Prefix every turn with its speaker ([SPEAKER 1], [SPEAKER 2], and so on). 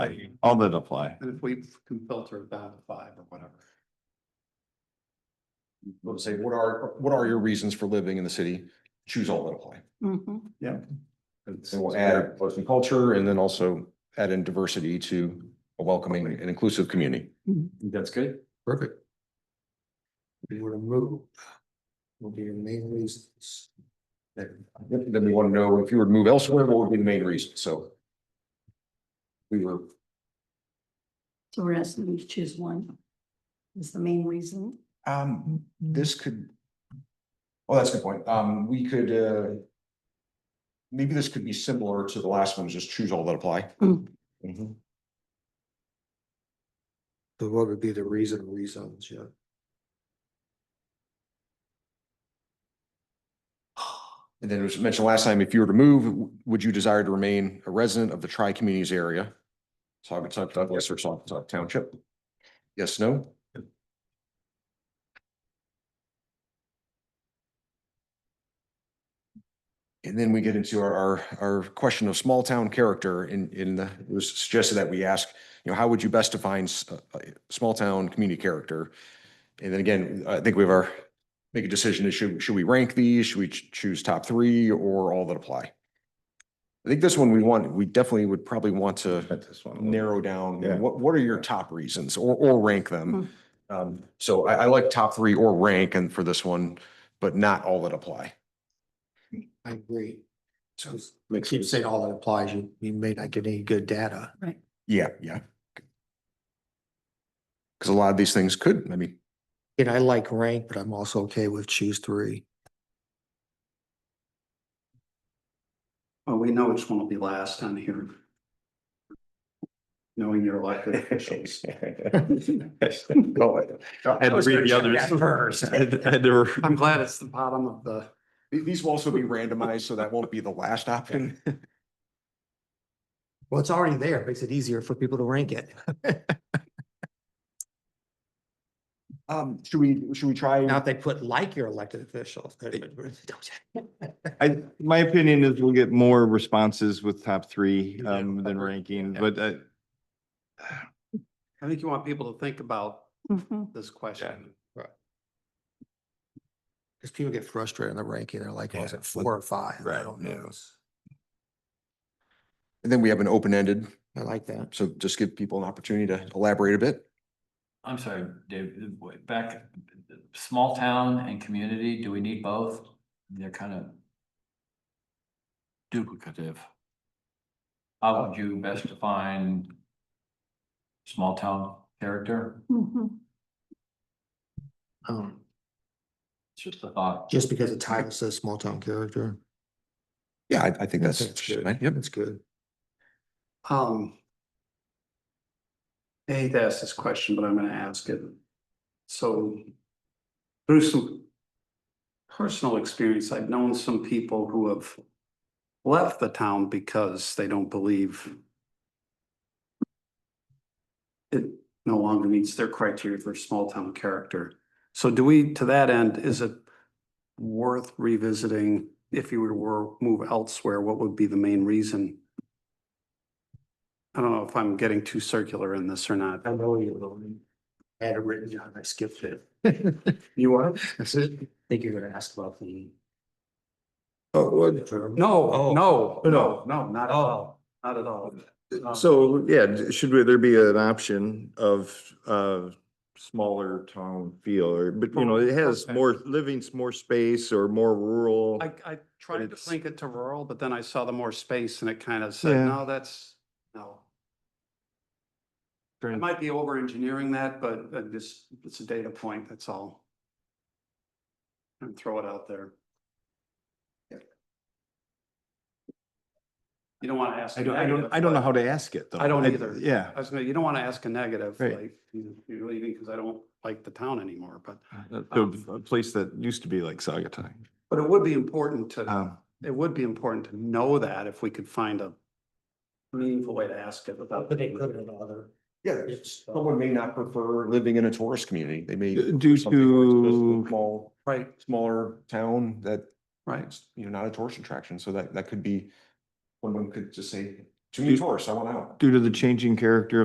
[SPEAKER 1] all that apply.
[SPEAKER 2] And if we can filter it down to five or whatever.
[SPEAKER 3] Let's say, what are, what are your reasons for living in the city? Choose all that apply.
[SPEAKER 4] Mhm.
[SPEAKER 2] It's-
[SPEAKER 3] And we'll add arts and culture and then also add in diversity to a welcoming and inclusive community.
[SPEAKER 5] That's good.
[SPEAKER 6] Mm-hmm. Perfect. We were to move. Will be your main reasons.
[SPEAKER 3] Then we want to know if you were to move elsewhere, what would be the main reason? So. We were,
[SPEAKER 4] So we're asking you to choose one. Is the main reason.
[SPEAKER 3] um, this could. Well, that's a good point. Um, we could, uh. Maybe this could be similar to the last one, just choose all that apply.
[SPEAKER 4] Mm.
[SPEAKER 3] Mhm.
[SPEAKER 6] So what would be the reason, reasons, yeah?
[SPEAKER 3] And then it was mentioned last time, if you were to move, w- would you desire to remain a resident of the tri-communities area? So I would talk about Western Saugatuck Township. Yes, no? And then we get into our, our, our question of small town character in, in the, it was suggested that we ask, you know, how would you best define s- uh, uh, small town community character? And then again, I think we have our make a decision, is should, should we rank these? Should we ch- choose top three or all that apply? I think this one we want, we definitely would probably want to
[SPEAKER 1] Cut this one a little.
[SPEAKER 3] narrow down, you know,
[SPEAKER 1] Yeah.
[SPEAKER 3] what, what are your top reasons or, or rank them? Um, so I, I like top three or rank and for this one, but not all that apply.
[SPEAKER 6] I agree. So we keep saying all "Oh, that applies, you, you may not get any good data.
[SPEAKER 3] Yeah, yeah. Cause a lot of these things could, I mean,
[SPEAKER 6] And I like rank, but I'm also okay with choose three.
[SPEAKER 2] Well, we know which one will be last on here. Knowing your elected officials.
[SPEAKER 1] Had to read the others. Had- had to re-
[SPEAKER 2] I'm glad it's the bottom of the.
[SPEAKER 3] th- these will also be randomized, so that won't be the last option.
[SPEAKER 6] Well, it's already there, makes it easier for people to rank it.
[SPEAKER 3] Um, should we, should we try?
[SPEAKER 6] Now, if they put like your elected officials.
[SPEAKER 1] I, my opinion is we'll get more responses with top three, um, than ranking, but, uh,
[SPEAKER 2] I think you want people to think about
[SPEAKER 4] Mhm.
[SPEAKER 2] this question.
[SPEAKER 6] Because people get frustrated in the ranking, they're like,
[SPEAKER 1] Yeah.
[SPEAKER 6] was it four or five? I
[SPEAKER 1] Right,
[SPEAKER 6] don't
[SPEAKER 1] yeah.
[SPEAKER 6] know.
[SPEAKER 3] And then we have an open-ended,
[SPEAKER 6] I like that.
[SPEAKER 3] so just give people an opportunity to elaborate a bit.
[SPEAKER 5] I'm sorry, Dave, uh, w- back, small town and community, do we need both? They're kind of duplicative. How would you best define small town character?
[SPEAKER 4] Mhm.
[SPEAKER 6] Um,
[SPEAKER 5] It's just a thought.
[SPEAKER 6] just because the title says small town character.
[SPEAKER 3] Yeah, I, I think that's,
[SPEAKER 6] good.
[SPEAKER 3] fine. yep,
[SPEAKER 6] That's good.
[SPEAKER 2] Um. I hate to ask this question, but I'm gonna ask it. So. Through some. Personal experience, I've known some people who have. Left the town because they don't believe. It no longer meets their criteria for small town character. So do we, to that end, is it? Worth revisiting if you were to wor- move elsewhere, what would be the main reason? I don't know if I'm getting too circular in this or not.
[SPEAKER 6] I know you, Lily. I had it written down, I skipped it.
[SPEAKER 2] You are?
[SPEAKER 6] That's it. I think you're gonna ask about the.
[SPEAKER 3] Oh, well,
[SPEAKER 6] No.
[SPEAKER 2] No,
[SPEAKER 6] Oh.
[SPEAKER 2] no, no, no, not at all, not at all. Um,
[SPEAKER 1] so, yeah, d- should we- there be an option of, uh, smaller town feel or, but you know, it has
[SPEAKER 2] Okay.
[SPEAKER 1] more, living, more space or more rural.
[SPEAKER 2] I, I tried to
[SPEAKER 1] It's-
[SPEAKER 2] link it to rural, but then I saw the more space and it kind of said,
[SPEAKER 1] Yeah.
[SPEAKER 2] no, that's, no. I might be over engineering that, but uh, this, it's a data point, that's all. And throw it out there. You don't want to ask.
[SPEAKER 1] I don't, I don't, I don't know how to ask it though.
[SPEAKER 2] I don't either.
[SPEAKER 1] Yeah.
[SPEAKER 2] I was gonna, you don't want to ask a negative,
[SPEAKER 1] Right.
[SPEAKER 2] like, you- you're leaving because I don't like the town anymore, but, um,
[SPEAKER 1] The a place that used to be like Sagatuck.
[SPEAKER 2] but it would be important to,
[SPEAKER 1] Um,
[SPEAKER 2] it would be important to know that if we could find a meaningful way to ask it without.
[SPEAKER 6] But they could in other.
[SPEAKER 3] yeah,
[SPEAKER 6] It's-
[SPEAKER 3] someone may not prefer living in a tourist community, they may.
[SPEAKER 1] D-
[SPEAKER 3] prefer
[SPEAKER 1] due
[SPEAKER 3] something where it's just a
[SPEAKER 1] to-
[SPEAKER 3] Small,
[SPEAKER 2] Right,
[SPEAKER 3] smaller town that,
[SPEAKER 2] right.
[SPEAKER 3] you know, not a tourist attraction, so that, that could be. One of them could just say, too many tourists, I want out.
[SPEAKER 1] Due to the changing character